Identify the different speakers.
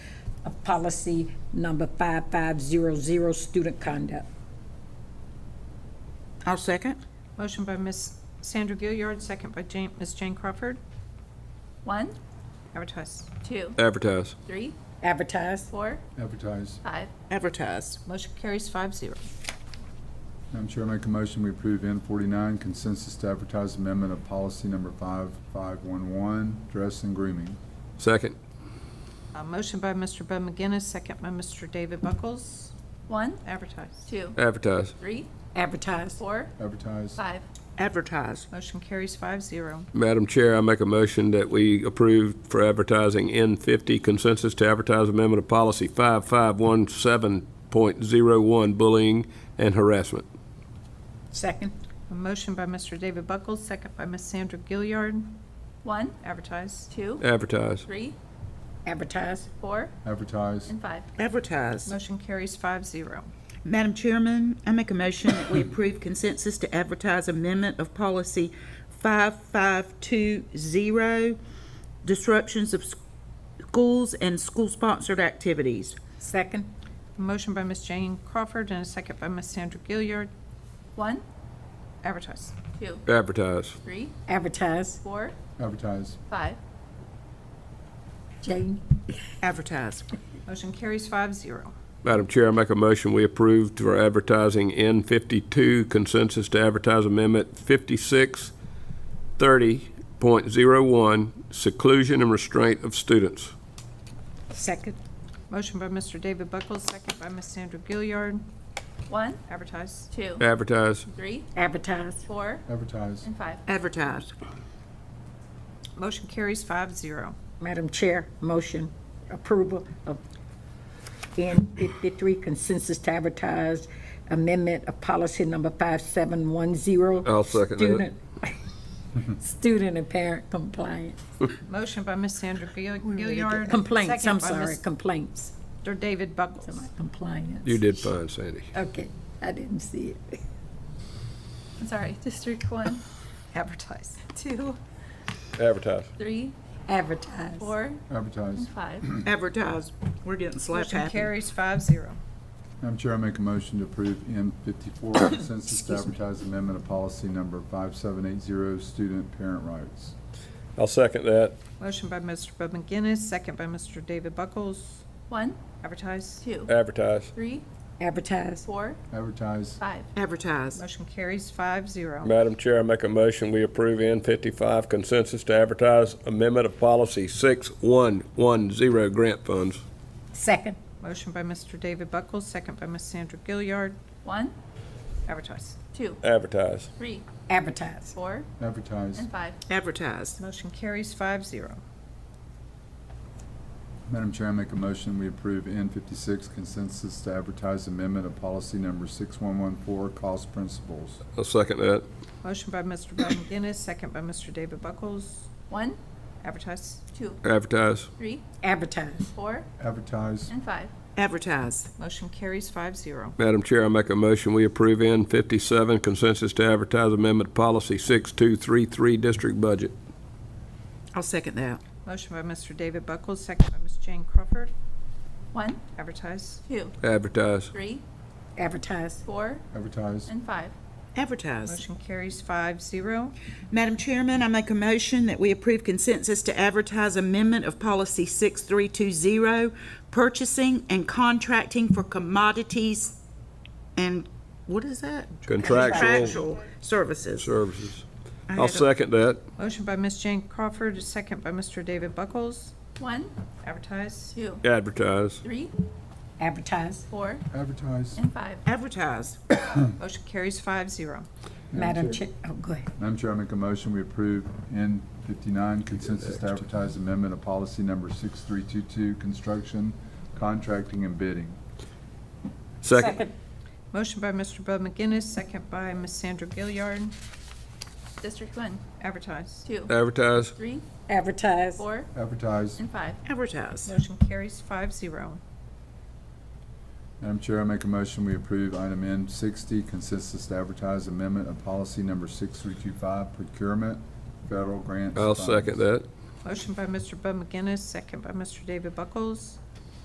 Speaker 1: of policy number 5500, student conduct.
Speaker 2: I'll second.
Speaker 3: Motion by Ms. Sandra Gilliard, second by Jane, Ms. Jane Crawford.
Speaker 4: One,
Speaker 3: Advertise.
Speaker 4: two,
Speaker 5: Advertise.
Speaker 4: three,
Speaker 1: Advertise.
Speaker 4: four,
Speaker 6: Advertise.
Speaker 4: five.
Speaker 2: Advertise.
Speaker 3: Motion carries five zero.
Speaker 6: Madam Chair, I make a motion, we approve N forty-nine consensus to advertise amendment of policy number five five one one, dress and grooming.
Speaker 5: Second.
Speaker 3: Uh, motion by Mr. Bud McGinnis, second by Mr. David Buckles.
Speaker 4: One,
Speaker 3: Advertise.
Speaker 4: two,
Speaker 5: Advertise.
Speaker 4: three,
Speaker 1: Advertise.
Speaker 4: four,
Speaker 6: Advertise.
Speaker 4: five.
Speaker 2: Advertise.
Speaker 3: Motion carries five zero.
Speaker 5: Madam Chair, I make a motion that we approve for advertising N50 consensus to advertise amendment of policy 5517.01 bullying and harassment.
Speaker 1: Second.
Speaker 3: A motion by Mr. David Buckles, second by Ms. Sandra Gilliard.
Speaker 4: One,
Speaker 3: Advertise.
Speaker 4: two,
Speaker 5: Advertise.
Speaker 4: three,
Speaker 1: Advertise.
Speaker 4: four,
Speaker 6: Advertise.
Speaker 4: and five.
Speaker 2: Advertise.
Speaker 3: Motion carries five zero.
Speaker 2: Madam Chairman, I make a motion that we approve consensus to advertise amendment of policy 5520, disruptions of s- schools and school-sponsored activities.
Speaker 1: Second.
Speaker 3: A motion by Ms. Jane Crawford and a second by Ms. Sandra Gilliard.
Speaker 4: One,
Speaker 3: Advertise.
Speaker 4: two,
Speaker 5: Advertise.
Speaker 4: three,
Speaker 1: Advertise.
Speaker 4: four,
Speaker 6: Advertise.
Speaker 4: five.
Speaker 1: Jane.
Speaker 2: Advertise.
Speaker 3: Motion carries five zero.
Speaker 5: Madam Chair, I make a motion we approve for advertising N52 consensus to advertise amendment 5630.01 seclusion and restraint of students.
Speaker 1: Second.
Speaker 3: Motion by Mr. David Buckles, second by Ms. Sandra Gilliard.
Speaker 4: One,
Speaker 3: Advertise.
Speaker 4: two,
Speaker 5: Advertise.
Speaker 4: three,
Speaker 1: Advertise.
Speaker 4: four,
Speaker 6: Advertise.
Speaker 4: and five.
Speaker 2: Advertise.
Speaker 3: Motion carries five zero.
Speaker 1: Madam Chair, motion approval of N fifty-three consensus to advertise amendment of policy number five seven one zero.
Speaker 5: I'll second that.
Speaker 1: Student and parent compliance,
Speaker 3: Motion by Ms. Sandra Gill- Gilliard.
Speaker 1: complaints, I'm
Speaker 3: second by
Speaker 1: sorry, complaints,
Speaker 3: Mr. David Buckles.
Speaker 1: compliance.
Speaker 5: You did fine, Sandy.
Speaker 1: Okay, I didn't see it.
Speaker 4: I'm sorry, District one,
Speaker 3: Advertise.
Speaker 4: two,
Speaker 5: Advertise.
Speaker 4: three,
Speaker 1: Advertise.
Speaker 4: four,
Speaker 6: Advertise.
Speaker 4: and five.
Speaker 2: Advertise. We're getting slap
Speaker 3: Motion
Speaker 2: happy.
Speaker 3: carries five zero.
Speaker 6: Madam Chair, I make a motion to approve N fifty-four consensus to advertise amendment of policy number five seven eight zero, student parent rights.
Speaker 5: I'll second that.
Speaker 3: Motion by Mr. Bud McGinnis, second by Mr. David Buckles.
Speaker 4: One,
Speaker 3: Advertise.
Speaker 4: two,
Speaker 5: Advertise.
Speaker 4: three,
Speaker 1: Advertise.
Speaker 4: four,
Speaker 6: Advertise.
Speaker 4: five.
Speaker 2: Advertise.
Speaker 3: Motion carries five zero.
Speaker 5: Madam Chair, I make a motion, we approve N55 consensus to advertise amendment of policy 6110 grant funds.
Speaker 1: Second.
Speaker 3: Motion by Mr. David Buckles, second by Ms. Sandra Gilliard.
Speaker 4: One,
Speaker 3: Advertise.
Speaker 4: two,
Speaker 5: Advertise.
Speaker 4: three,
Speaker 1: Advertise.
Speaker 4: four,
Speaker 6: Advertise.
Speaker 4: and five.
Speaker 2: Advertise.
Speaker 3: Motion carries five zero.
Speaker 6: Madam Chair, I make a motion, we approve N fifty-six consensus to advertise amendment of policy number six one one four, cost principles.
Speaker 5: I'll second that.
Speaker 3: Motion by Mr. Bud McGinnis, second by Mr. David Buckles.
Speaker 4: One,
Speaker 3: Advertise.
Speaker 4: two,
Speaker 5: Advertise.
Speaker 4: three,
Speaker 1: Advertise.
Speaker 4: four,
Speaker 6: Advertise.
Speaker 4: and five.
Speaker 2: Advertise.
Speaker 3: Motion carries five zero.
Speaker 5: Madam Chair, I make a motion, we approve N57 consensus to advertise amendment policy 6233 district budget.
Speaker 2: I'll second that.
Speaker 3: Motion by Mr. David Buckles, second by Ms. Jane Crawford.
Speaker 4: One,
Speaker 3: Advertise.
Speaker 4: two,
Speaker 5: Advertise.
Speaker 4: three,
Speaker 1: Advertise.
Speaker 4: four,
Speaker 6: Advertise.
Speaker 4: and five.
Speaker 2: Advertise.
Speaker 3: Motion carries five zero.
Speaker 2: Madam Chairman, I make a motion that we approve consensus to advertise amendment of policy 6320, purchasing and contracting for commodities and, what is that?
Speaker 5: Contractual
Speaker 2: Contractual services.
Speaker 5: services.
Speaker 2: I
Speaker 5: I'll
Speaker 2: had a-
Speaker 5: second that.
Speaker 3: Motion by Ms. Jane Crawford, a second by Mr. David Buckles.
Speaker 4: One,
Speaker 3: Advertise.
Speaker 4: two,
Speaker 5: Advertise.
Speaker 4: three,
Speaker 1: Advertise.
Speaker 4: four,
Speaker 6: Advertise.
Speaker 4: and five.
Speaker 2: Advertise.
Speaker 3: Motion carries five zero.
Speaker 1: Madam Chair, oh, go ahead.
Speaker 6: Madam Chair, I make a motion, we approve N fifty-nine consensus to advertise amendment of policy number six three two two, construction, contracting, and bidding.
Speaker 5: Second.
Speaker 3: Motion by Mr. Bud McGinnis, second by Ms. Sandra Gilliard.
Speaker 4: District one,
Speaker 3: Advertise.
Speaker 4: two,
Speaker 5: Advertise.
Speaker 4: three,
Speaker 1: Advertise.
Speaker 4: four,
Speaker 6: Advertise.
Speaker 4: and five.
Speaker 2: Advertise.
Speaker 3: Motion carries five zero.
Speaker 6: Madam Chair, I make a motion, we approve item N sixty consensus to advertise amendment of policy number six three two five, procurement, federal grants.
Speaker 5: I'll
Speaker 6: funds.
Speaker 5: second that.
Speaker 3: Motion by Mr. Bud McGinnis, second by Mr. David Buckles.